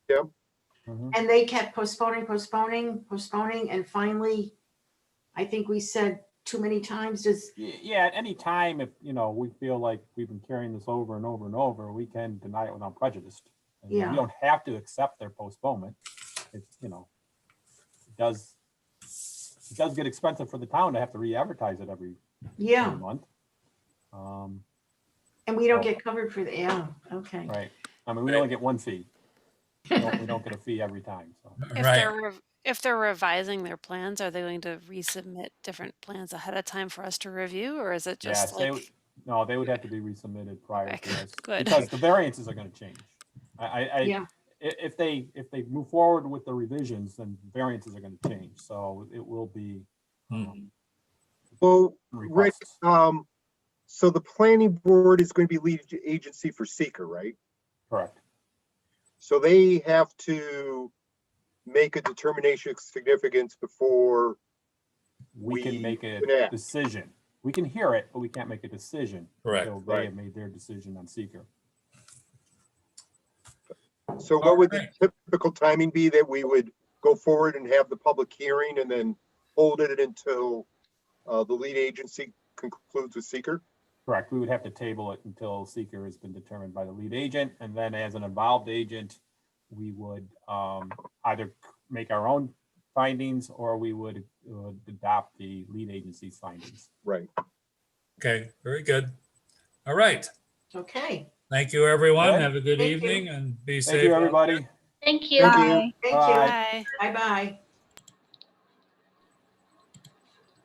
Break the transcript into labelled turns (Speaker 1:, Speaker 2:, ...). Speaker 1: Yep.
Speaker 2: Mhm.
Speaker 3: And they kept postponing, postponing, postponing, and finally, I think we said too many times, does,
Speaker 2: Y- Yeah, at any time, if, you know, we feel like we've been carrying this over and over and over, we can deny it without prejudice. And
Speaker 3: Yeah.
Speaker 2: We don't have to accept their postponement. It's, you know, it does, it does get expensive for the town to have to re-advertise it every every
Speaker 3: yeah,
Speaker 2: month. Um,
Speaker 3: and we don't get covered for the, yeah, okay.
Speaker 2: Right, I mean, we only get one fee. We don't we don't get a fee every time, so.
Speaker 4: If
Speaker 5: Right.
Speaker 4: they're rev- if they're revising their plans, are they going to resubmit different plans ahead of time for us to review, or is it
Speaker 2: Yeah,
Speaker 4: just
Speaker 2: they,
Speaker 4: like?
Speaker 2: would- no, they would have to be resubmitted prior
Speaker 4: Okay,
Speaker 2: to this.
Speaker 4: good.
Speaker 2: Because the variances are gonna change. I, I, I,
Speaker 3: Yeah.
Speaker 2: i- if they, if they move forward with the revisions, then variances are gonna change, so it will be.
Speaker 5: Hmm.
Speaker 2: um,
Speaker 1: Well, right,
Speaker 2: requests.
Speaker 1: um, so the planning board is going to be lead ag- agency for seeker, right?
Speaker 2: Correct,
Speaker 1: So they have to make a determination of significance before,
Speaker 2: we
Speaker 1: We
Speaker 2: can make a
Speaker 1: could act.
Speaker 2: decision. We can hear it, but we can't make a decision.
Speaker 5: Correct.
Speaker 2: until They
Speaker 1: Right.
Speaker 2: have made their decision on seeker.
Speaker 1: so what would the
Speaker 5: Alright.
Speaker 1: typical timing be that we would go forward and have the public hearing and then hold it until uh, the lead agency concludes with seeker?
Speaker 2: Correct, we would have to table it until seeker has been determined by the lead agent, and then as an involved agent, we would um, either make our own findings or we would uh, adopt the lead agency's findings.
Speaker 1: Right.
Speaker 5: Okay, very good. All right.
Speaker 3: Okay,
Speaker 5: Thank you, everyone.
Speaker 2: Okay.
Speaker 5: Have a good
Speaker 3: Thank you.
Speaker 5: evening and be safe.
Speaker 2: Thank you, everybody.
Speaker 6: Thank you.
Speaker 1: Thank you.
Speaker 3: thank
Speaker 2: Bye.
Speaker 3: you,
Speaker 2: Bye.
Speaker 3: bye-bye.